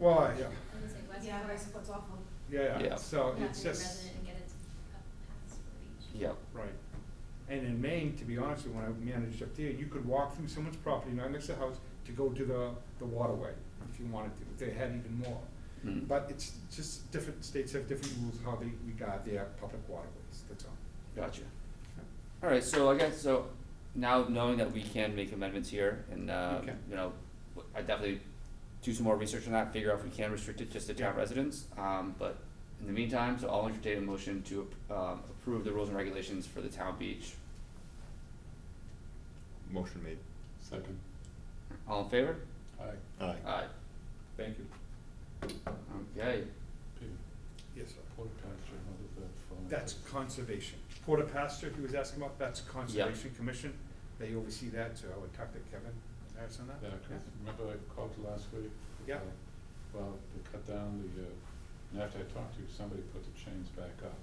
Well, yeah, I'd say West Yeah, I Forest. suppose awful. yeah, yeah, Yeah. so Not it's to be just, resident and get it a pass for each. Yep. right. And in Maine, to be honest, with you, when I managed up there, you could walk through someone's property, not next to the house, to go to the, the waterway, if you wanted to, if they had even more. Mm. But it's just different, states have different rules how they regard their public waterways, that's all. Gotcha. All right, so I guess, so now knowing that we can make amendments here and, uh, Okay. you know, w- I definitely do some more research on that, figure out if we can restrict it just to town Yeah. residents. Um, but in the meantime, so I'll entertain a motion to, ap- um, approve the rules and regulations for the town beach. Motion made. Second. All in favor? Aye. Aye. Aye. Thank you. Okay, Peter, Yes, sir. porta pasture, how does that fall? into- That's conservation. Porter Pastor, he was asking about, that's Conservation Commission. They oversee that, so I would talk to Kevin Harris on that. Yeah, 'cause remember I called you last week? Yeah. Uh, Well, they cut down the, uh, and after I talked to you, somebody put the chains back up,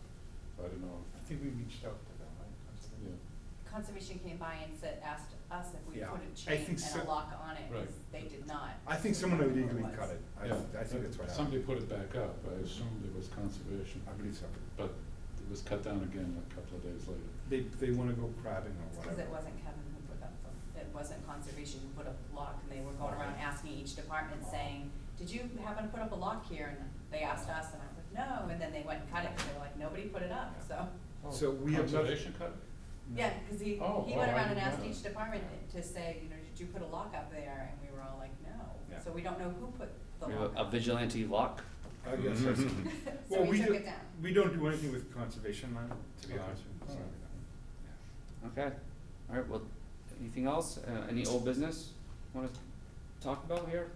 so I don't know, I think we reached out to them, right? if- Conservation? yeah, Conservation came by and said, asked us if we Yeah, put I a chain think so- and a lock on it, 'cause Right. they did not. I think someone illegally cut it. I, yeah. I think that's what Somebody happened. put it back up, I assumed it was conservation, I believe so. but it was cut down again a couple of days later. They, they wanna go crabbing or Because whatever. it wasn't Kevin who put up the, it wasn't conservation who put up the lock, and they were going around asking each department saying, did you happen to put up a lock here? And they asked us, and I was like, no, and then they went and cut it, because they were like, nobody put it up, so. So we have not- Conservation cut? it? Yeah, because he, Oh, he oh, went I around and didn't asked know each that. department to say, you know, did you put a lock up there? And we were all like, no, Yeah. so we don't know who put the we have lock a up. vigilante lock. I guess that's. So Well, we took do- it down. We don't do anything with conservation, land, to be Okay. honest with you. Sorry about that. Okay, all right, well, anything else, uh, any old business wanna talk about here?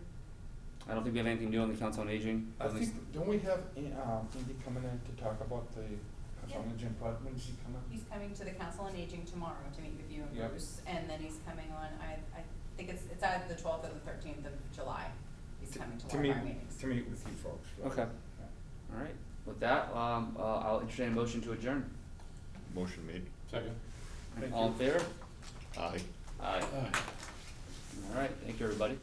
I don't think we have anything new on the council on aging, I at least, think, don't we have, um, Andy coming in to talk about the, Yeah. on the gym part, when is he coming? He's coming to the council on aging tomorrow to meet with you Yeah. and Bruce, and then he's coming on, I, I think it's, it's either the twelfth or the thirteenth of July. He's To- coming to to one of our meet- meetings. To meet with you folks. right? Okay. Yeah. all right, with that, um, uh, I'll entertain a motion to adjourn. Motion made. Second? Thank All you. in favor? Aye. Aye, Aye. Uh, all right, thank you, everybody.